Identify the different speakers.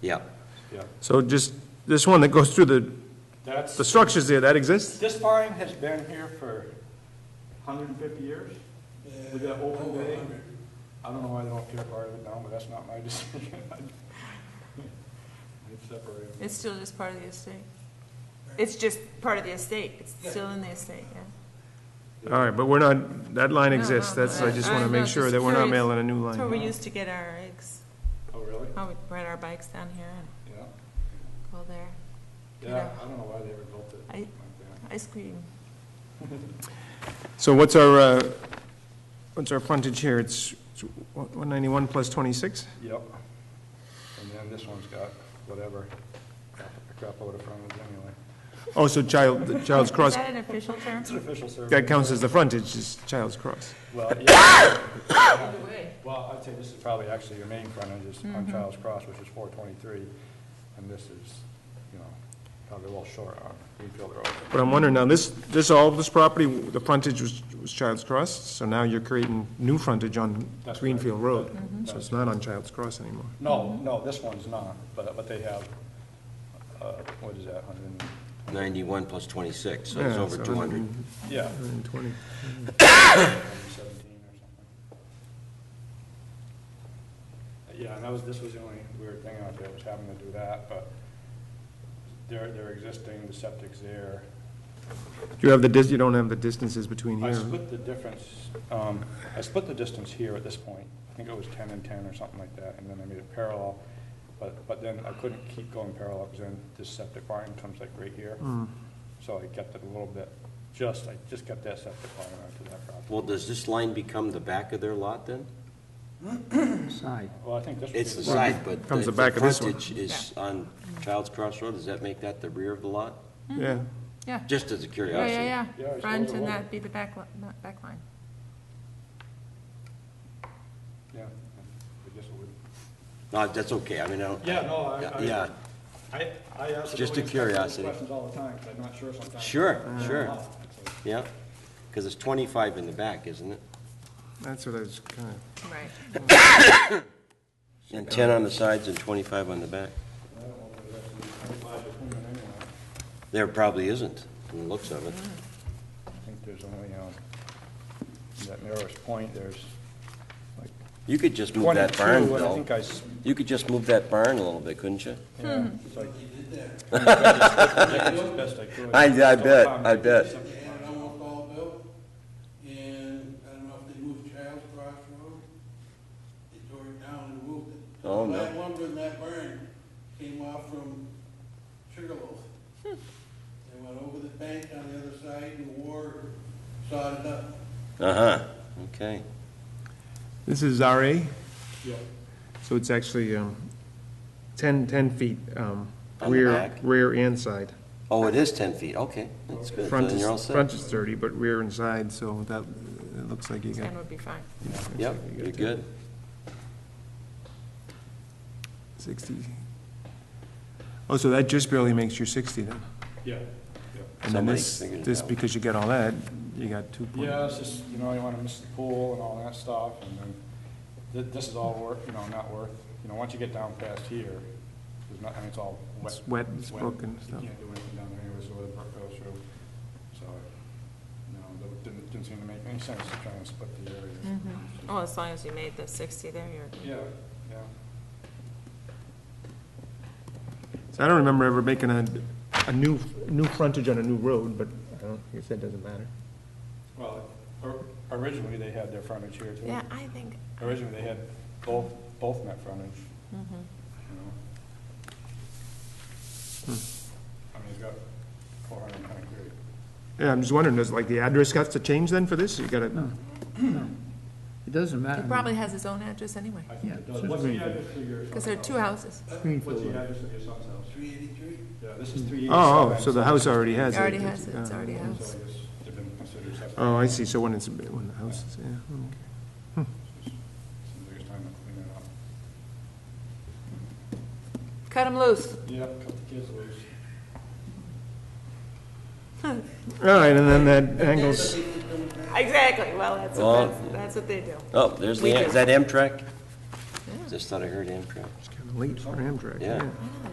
Speaker 1: Yeah.
Speaker 2: Yeah,
Speaker 3: So just, this one that goes through the, the
Speaker 2: that's,
Speaker 3: structures there, that exists?
Speaker 2: this barn has been here for 150 years. With that open bay. I don't know why they don't tear part of it down, but that's not my decision. It's separated.
Speaker 4: It's still just part of the estate. It's just part of the estate, it's still in the estate, yeah.
Speaker 3: All right, but we're not, that line
Speaker 4: No,
Speaker 3: exists,
Speaker 4: no,
Speaker 3: that's, I just want
Speaker 4: I-
Speaker 3: to
Speaker 4: I'm
Speaker 3: make
Speaker 4: not
Speaker 3: sure
Speaker 4: just
Speaker 3: that we're not
Speaker 4: curious.
Speaker 3: mailing a new
Speaker 4: That's where we
Speaker 3: line.
Speaker 4: used to get our eggs,
Speaker 2: Oh, really?
Speaker 4: how we ride our bikes down here and
Speaker 2: Yeah.
Speaker 4: go there,
Speaker 2: Yeah, I don't know why they ever built it
Speaker 4: I-
Speaker 2: like that.
Speaker 4: ice cream.
Speaker 3: So what's our, uh, what's our frontage here? It's it's 191 plus 26?
Speaker 2: Yep. And then this one's got whatever, crap- crap out of front of it anyway.
Speaker 3: Oh, so Child, the Child's
Speaker 4: Is
Speaker 3: Cross,
Speaker 4: that an official term?
Speaker 2: It's an official survey.
Speaker 3: that counts as the frontage, is Child's Cross.
Speaker 2: Well, yeah. Well, I'd say this is probably actually your main frontage is on Childs Cross, which is four twenty-three, and this is, you know, probably a little short on Greenfield Road.
Speaker 3: But I'm wondering, now, this, this, all this property, the frontage was, was Child's Cross, so now you're creating new frontage on
Speaker 2: That's right.
Speaker 3: Greenfield Road.
Speaker 2: Mhm.
Speaker 3: So it's not on Child's Cross anymore.
Speaker 2: No, no, this one's not, but, but they have, uh, what is that, hundred and,
Speaker 1: 91 plus 26, so it's
Speaker 3: Yeah,
Speaker 1: over
Speaker 3: so
Speaker 1: 200.
Speaker 3: 100.
Speaker 2: yeah,
Speaker 3: 120.
Speaker 2: seventeen or something. Yeah, and that was, this was the only weird thing out there, was having to do that, but they're, they're existing, the septic's there,
Speaker 3: You have the dis, you don't have the distances between
Speaker 2: I
Speaker 3: here.
Speaker 2: split the difference, um, I split the distance here at this point. I think it was ten and ten or something like that, and then I made it parallel. But, but then I couldn't keep going parallel, because then this septic line comes like right here. So I kept it a little bit, just, I just kept that septic line onto that property.
Speaker 1: Well, does this line become the back of their lot then?
Speaker 2: Well, I think this would be.
Speaker 1: It's the side, but
Speaker 3: Comes
Speaker 1: the
Speaker 3: the back
Speaker 1: the
Speaker 3: of this one.
Speaker 1: frontage is on Child's Cross Road. Does that make that the rear of the lot?
Speaker 3: Yeah.
Speaker 4: Yeah,
Speaker 1: Just as a
Speaker 4: yeah,
Speaker 1: curiosity.
Speaker 4: yeah,
Speaker 2: Yeah,
Speaker 4: yeah,
Speaker 2: it's
Speaker 4: front
Speaker 2: over
Speaker 4: and
Speaker 2: one.
Speaker 4: that'd be the back, li- not back line.
Speaker 2: Yeah, I guess it would.
Speaker 1: No, that's okay, I mean, I don't.
Speaker 2: Yeah, no, I- I-
Speaker 1: Yeah,
Speaker 2: I, I ask. the
Speaker 1: Just a
Speaker 2: building inspector those
Speaker 1: curiosity.
Speaker 2: Questions all the time, 'cause I'm not sure sometimes.
Speaker 1: Sure,
Speaker 2: I don't
Speaker 1: sure.
Speaker 2: know. It's like,
Speaker 1: yeah, because it's 25 in the back, isn't it?
Speaker 3: That's what I was kind of,
Speaker 4: Right.
Speaker 1: And 10 on the sides and 25 on the back.
Speaker 2: I don't know whether that's the- I don't know if it's clean anyway.
Speaker 1: There probably isn't, from the looks of it.
Speaker 2: I think there's only, um, that narrowest point, there's like
Speaker 1: You could just move that
Speaker 2: twenty-two,
Speaker 1: barn,
Speaker 2: and I
Speaker 1: Bill.
Speaker 2: think I, s-
Speaker 1: You could just move that barn a little bit, couldn't you?
Speaker 2: yeah, it's like. I did that.
Speaker 1: I- I bet, I bet.
Speaker 5: and almost all built. And I don't know if they moved Child's Cross Road. They tore it down and moved it.
Speaker 1: Oh, no.
Speaker 5: That lumber in that barn came off from Sugarloaf.
Speaker 1: Hmm.
Speaker 5: They went over the bank on the other side and wore, sawed it up.
Speaker 1: Uh-huh, okay.
Speaker 3: this is RA,
Speaker 2: Yeah,
Speaker 3: so it's actually um, 10, 10 feet um,
Speaker 1: On the
Speaker 3: rear,
Speaker 1: back?
Speaker 3: rear and side.
Speaker 1: Oh, it is 10 feet, okay, that's good. So
Speaker 3: Front
Speaker 1: then
Speaker 3: is,
Speaker 1: you're all set.
Speaker 3: front is 30, but rear and side, so that, it looks like you got,
Speaker 4: Ten would be fine.
Speaker 1: Yep,
Speaker 3: you got
Speaker 1: you're
Speaker 3: that.
Speaker 1: good.
Speaker 3: 60. Oh, so that just barely makes your 60 then.
Speaker 2: yeah, yeah.
Speaker 3: And then
Speaker 1: Somebody
Speaker 3: this,
Speaker 1: figured it
Speaker 3: this,
Speaker 1: out.
Speaker 3: because you got all that, you got two point.
Speaker 2: Yeah, it's just, you know, you wanna miss the pool and all that stuff, and then, thi- this is all worth, you know, not worth, you know, once you get down past here, there's not, I mean, it's all wet.
Speaker 3: It's wet, it's broken
Speaker 2: You
Speaker 3: stuff.
Speaker 2: can't do anything down there anyways, where the brook goes through, so, you know, it didn't, didn't seem to make any sense to try and split the area.
Speaker 4: Well, as long as you made the sixty there, you're,
Speaker 2: Yeah, yeah.
Speaker 3: So I don't remember ever making a, a new, new frontage on a new road, but I don't, I guess that doesn't matter.
Speaker 2: Well, or- originally, they had their frontage here, too.
Speaker 4: yeah, I think,
Speaker 2: Originally, they had both, both net frontage, you
Speaker 4: Mm-hmm.
Speaker 2: know? I mean, it's got four hundred and ten degree.
Speaker 3: Yeah, I'm just wondering, does like the address got to change then for this? You gotta,
Speaker 6: It doesn't matter.
Speaker 4: he probably has his own address anyway,
Speaker 2: I
Speaker 6: Yeah,
Speaker 2: think it
Speaker 6: so
Speaker 2: does.
Speaker 6: it's
Speaker 2: What's the
Speaker 6: Greenfield.
Speaker 2: address of your son's
Speaker 4: because there are two
Speaker 2: house?
Speaker 4: houses.
Speaker 2: What's
Speaker 6: Greenfield.
Speaker 2: the address of your son's house?
Speaker 5: Three eighty-three?
Speaker 2: Yeah, this is three eighty-seven.
Speaker 3: oh, oh, so the house already has
Speaker 4: It
Speaker 3: it.
Speaker 4: already has it, it's
Speaker 3: Oh.
Speaker 4: already a house.
Speaker 2: So I guess they've been considered separate.
Speaker 3: Oh, I see, so when it's, when the house is, yeah, okay.
Speaker 2: Seems like it's time to clean it up.
Speaker 4: Cut him loose.
Speaker 2: Yeah, cut the kids loose.
Speaker 3: All right, and then that angles,
Speaker 4: Exactly, well, that's,
Speaker 1: Well-
Speaker 4: what- that's, that's what they do.
Speaker 1: Oh, there's the,
Speaker 4: We
Speaker 1: Am-
Speaker 4: do.
Speaker 1: is that Amtrak? Just thought I heard Amtrak.
Speaker 3: just kinda late for Amtrak,
Speaker 1: Yeah.
Speaker 3: yeah.